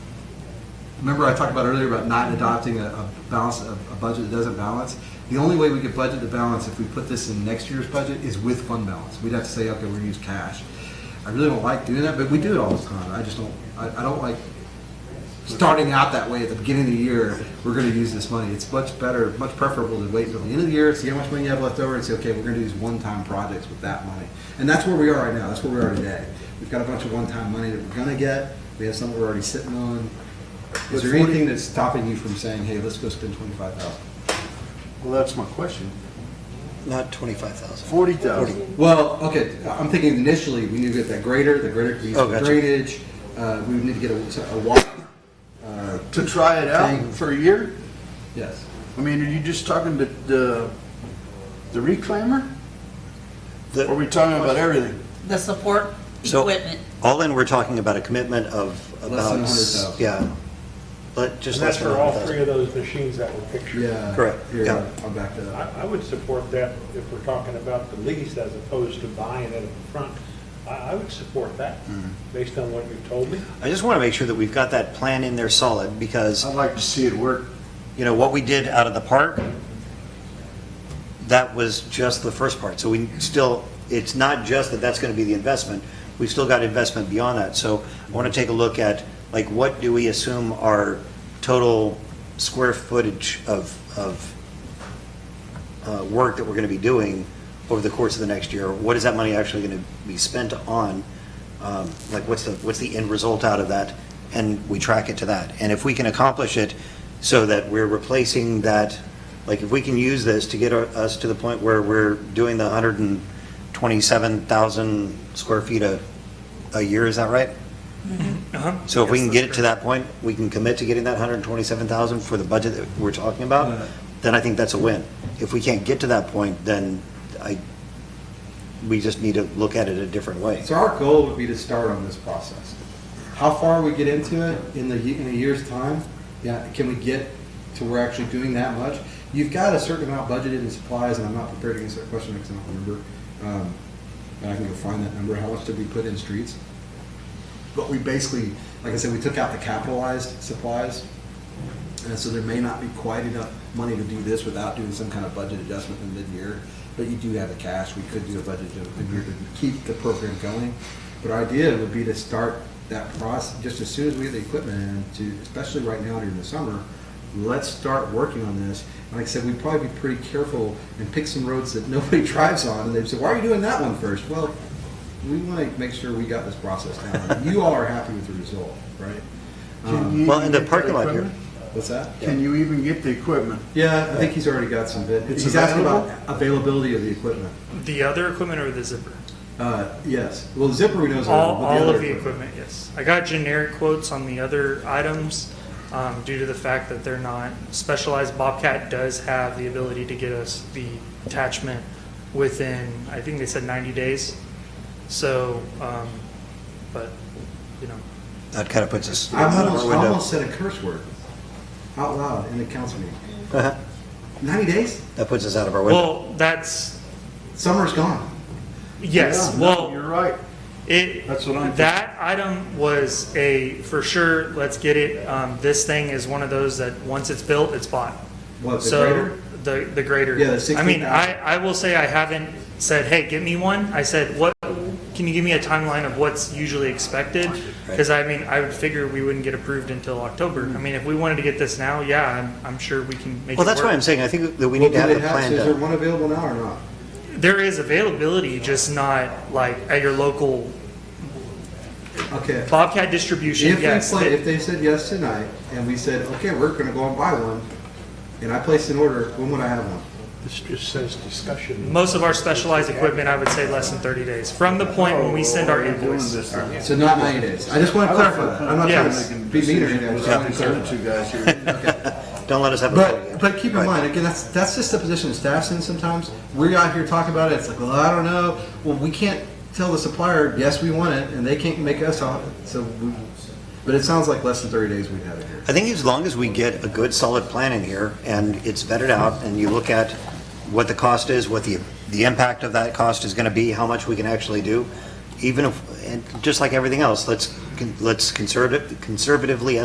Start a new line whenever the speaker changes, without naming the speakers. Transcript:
remember I talked about earlier about not adopting a, a balance, a, a budget that doesn't balance? The only way we could budget to balance if we put this in next year's budget is with fund balance. We'd have to say, okay, we're gonna use cash. I really don't like doing that, but we do it all the time. I just don't, I, I don't like starting out that way at the beginning of the year, we're gonna use this money. It's much better, much preferable to wait until the end of the year, see how much money you have left over and say, okay, we're gonna do these one-time projects with that money. And that's where we are right now. That's where we are today. We've got a bunch of one-time money that we're gonna get. We have some we're already sitting on. Is there anything that's stopping you from saying, hey, let's go spend twenty-five thousand?
Well, that's my question.
Not twenty-five thousand.
Forty thousand.
Well, okay, I'm thinking initially, we need to get that grader, the grader could be used
Oh,
for
gotcha.
drainage, uh, we would need to get a, a walk, uh,
To try it
Thing.
out for a year?
yes.
I mean, are you just talking to the, the reclaimer? Or are we talking about everything?
the support
So-
equipment.
All in, we're talking about a commitment of
than
about.
100,000.
Yeah. Let, just
And
less
that's
than
for all three
100,000.
of those machines that were pictured.
Yeah.
Correct,
Here,
yeah.
I'll back that up.
I, I would support that if we're talking about the lease as opposed to buying it up front. I, I would support that, based on what you've told me.
I just want to make sure that we've got that plan in there solid because,
I'd like to see it work.
you know, what we did out of the park, that was just the first part. So we still, it's not just that that's going to be the investment. We've still got investment beyond that. So I want to take a look at, like, what do we assume our total square footage of, of uh, work that we're going to be doing over the course of the next year? What is that money actually going to be spent on? Um, Like, what's the, what's the end result out of that? And we track it to that. And if we can accomplish it so that we're replacing that, like, if we can use this to get our- us to the point where we're doing the 127,000 square feet a, a year, is that right?
Uh-huh.
So if we can get it to that point, we can commit to getting that 127,000 for the budget that we're talking
Yeah.
about, then I think that's a win. If we can't get to that point, then I, we just need to look at it a different way.
So our goal would be to start on this process. How far we get into it in the, ye- in a year's time, yeah, can we get to we're actually doing that much? You've got a certain amount budgeted in supplies, and I'm not prepared to answer that question because I don't remember. Um, And I can go find that number. How much did we put in streets? But we basically, like I said, we took out the capitalized supplies. And so there may not be quite enough money to do this without doing some kind of budget adjustment in mid-year. But you do have the cash, we could do a budget adjustment mid-year to keep the program going. But our idea would be to start that process, just as soon as we get the equipment in, to, especially right now during the summer, let's start working on this. And Like I said, we'd probably be pretty careful and pick some roads that nobody drives on, and they'd say, why are you doing that one first? Well, we want to make sure we got this process down. You all are happy with the result, right?
Can you
Uh-huh. Well,
even
and the
get
parking lot
equipment?
What's that?
Can you even get the equipment?
Yeah, I think he's already got some bid.
It's
He's asking about availability of the equipment.
The other equipment or the zipper?
Uh, yes, well, the zipper we know is.
All,
available, but
all
other
of the equipment, yes. I got generic quotes on the other items um, due to the fact that they're not specialized. Bobcat does have the ability to get us the attachment within, I think they said 90 days. So, um, but, you know,
That kind of puts us
I
out of
almost,
our
I almost
window.
said a curse word out loud in the council meeting.
Uh-huh.
Ninety days?
That puts us out of our window.
well, that's,
Summer's gone.
yes,
Yeah, no,
well.
You're right.
It,
That's what I'm-
that item was a, for sure, let's get it, um, this thing is one of those that, once it's built, it's bought.
What, Oh, the
So,
grader?
The, the grader.
Yeah, the
I mean,
16,000.
I, I will say I haven't said, hey, get me one. I said, what, can you give me a timeline of what's usually expected? Because I mean, I would figure we wouldn't get approved until October. I mean, if we wanted to get this now, yeah, I'm, I'm sure we can make it work.
Well, that's why I'm saying, I think that we need to have
Do
the
they
plan
Is there
done.
one available now or not?
There is availability, just not like at your local
Okay.
Bobcat distribution,
If they
yes.
play,
it-
if they said yes tonight and we said, okay, we're gonna go and buy one, and I placed an order, when would I have one?
This just says discussion.
Most of our specialized equipment, I would say less than 30 days, from the point when we send
Oh,
our
Oh, We're doing
invoice.
this now.
So not ninety days. I just want to clarify that. I'm not trying
Yes.
to be mean or anything. I just
Yeah,
want to
these
clarify.
other two guys here.
Don't let us have a. vote.
But, but keep in
Right.
mind, again, that's, that's just the position that staff's in sometimes. We're out here talking about it, it's like, well, I don't know. Well, we can't tell the supplier, yes, we want it, and they can't make us off it, so we, but it sounds like less than thirty days we'd have it here.
I think as long as we get a good, solid plan in here, and it's vetted out, and you look at what the cost is, what the, the impact of that cost is gonna be, how much we can actually do, even if, and just like everything else, let's, con- let's conservative, conservatively